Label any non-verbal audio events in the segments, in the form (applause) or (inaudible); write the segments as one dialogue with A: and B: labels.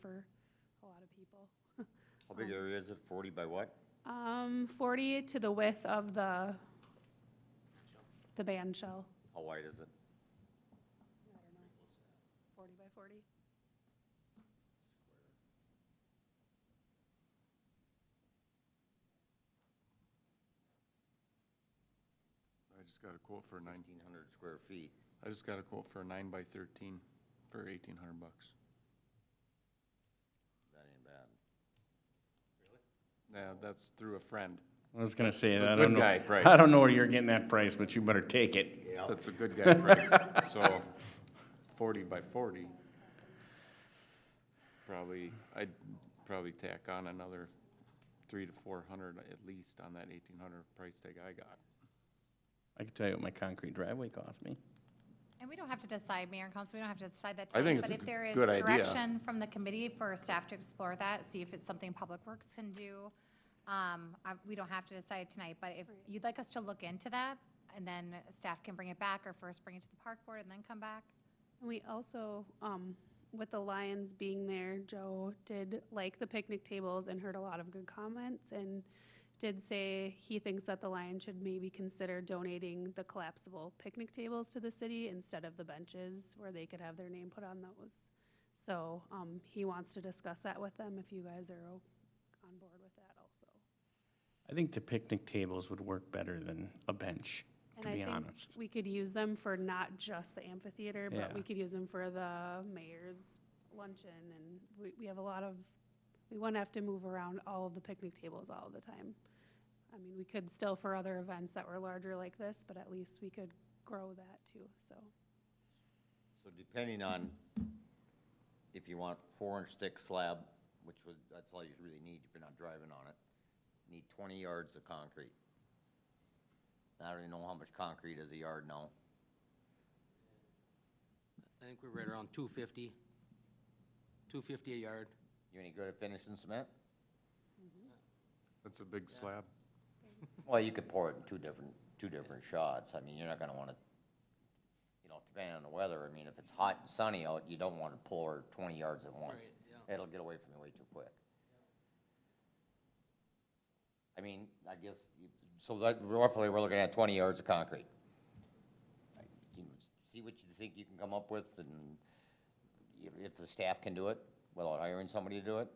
A: for a lot of people.
B: How big area is it? Forty by what?
A: Um, 40 to the width of the, the band shell.
B: How wide is it?
A: 40 by 40?
C: I just got a quote for nine,
B: Nineteen hundred square feet.
C: I just got a quote for a nine by thirteen for eighteen hundred bucks.
B: That ain't bad.
C: Yeah, that's through a friend.
D: I was gonna say, I
C: good
D: don't know,
C: guy price.
D: I don't know where you're getting that price, but you better take it.
C: That's a good
B: (laughs)
C: guy price, so forty by forty. Probably, I'd probably tack on another three to four hundred at least on that eighteen hundred price tag I got.
D: I can tell you what my concrete driveway cost me.
E: And we don't have to decide, Mayor and Council, we don't have to decide that
C: I
E: today.
C: think it's a g- good
E: But
C: idea.
E: if there is direction from the committee for staff to explore that, see if it's something Public Works can do, um, I- we don't have to decide tonight, but if you'd like us to look into that, and then staff can bring it back, or first bring it to the park board and then come back.
A: And we also, um, with the Lions being there, Joe did like the picnic tables and heard a lot of good comments and did say he thinks that the Lions should maybe consider donating the collapsible picnic tables to the city instead of the benches where they could have their name put on those. So, um, he wants to discuss that with them if you guys are o- on board with that also.
D: I think the picnic tables would work better than a bench,
A: And
D: to
A: I
D: be
A: think
D: honest.
A: We could use them for not just the amphitheater, but we
D: Yeah.
A: could use them for the mayor's luncheon and we, we have a lot of, we wouldn't have to move around all of the picnic tables all the time. I mean, we could still for other events that were larger like this, but at least we could grow that too, so.
B: So depending on if you want four inch thick slab, which would, that's all you really need if you're not driving on it, need twenty yards of concrete. I don't even know how much concrete is a yard now.
F: I think we're right around 250, 250 a yard.
B: You any good at finishing cement?
C: That's a big slab.
B: Well, you could pour it in two different, two different shots. I mean, you're not gonna wanna, you know, depending on the weather, I mean, if it's hot and sunny out, you don't wanna pour twenty yards at once.
F: Right,
B: It'll get away from you way too quick. I mean, I guess, you- so that roughly, we're looking at twenty yards of concrete. I can- See what you think you can come up with and if- if the staff can do it without hiring somebody to do it.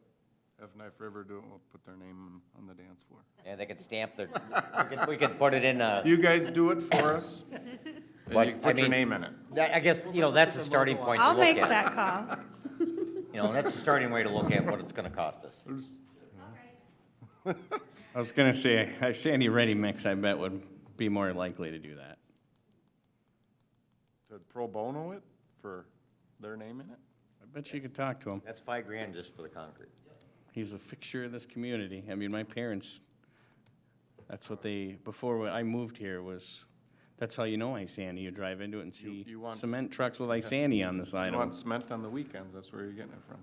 C: If Knife River do it, we'll put their name on on the dance floor.
B: And they could stamp their, we could, we could put it in a.
C: You guys do it for us, and
B: But,
C: you
B: I
C: put your
B: mean-
C: name in it.
B: That, I guess, you know, that's a starting point to
A: I'll
B: look
A: make
B: at.
A: that call.
B: You know, that's a starting way to look at what it's gonna cost us.
D: I was gonna say, a Sandy Ready Mix, I bet would be more likely to do that.
C: To pro bono it for their name in it?
D: I bet you could talk to him.
B: That's five grand just for the concrete.
D: He's a fixture of this community. I mean, my parents, that's what they, before when I moved here was, that's how you know Isani. You drive into it and see
C: you want s-
D: cement
C: (laughs)
D: trucks with Isani on the side
C: You
D: of them.
C: want cement on the weekends, that's where you're getting it from.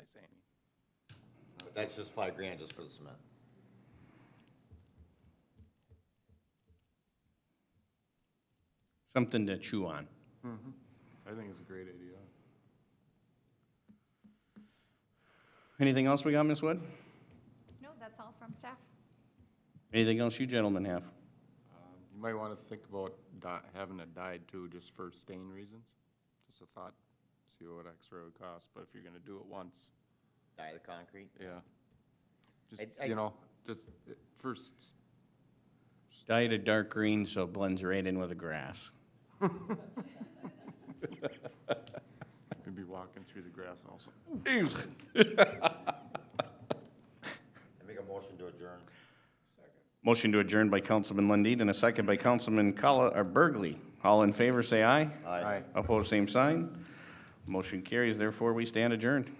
C: I say.
B: But that's just five grand just for the cement.
D: Something to chew on.
C: I think it's a great idea.
D: Anything else we got, Ms. Wood?
E: No, that's all from staff.
D: Anything else you gentlemen have?
C: Um, You might want to think about di- having it dyed too, just for stain reasons. Just a thought, see what extra would cost, but if you're gonna do it once,
B: Dye the concrete?
C: yeah. Just,
B: I- I-
C: you know, just uh, first, s-
D: Dye it a dark green so it blends right in with the grass.
C: could be walking through the grass also.
B: I make a motion to adjourn.
D: Motion to adjourn by Councilman Lundin and a second by Councilman Colli- or Burgley. All in favor, say aye.
B: Aye.
C: Aye.
D: Opposed, same sign. Motion carries, therefore we stand adjourned.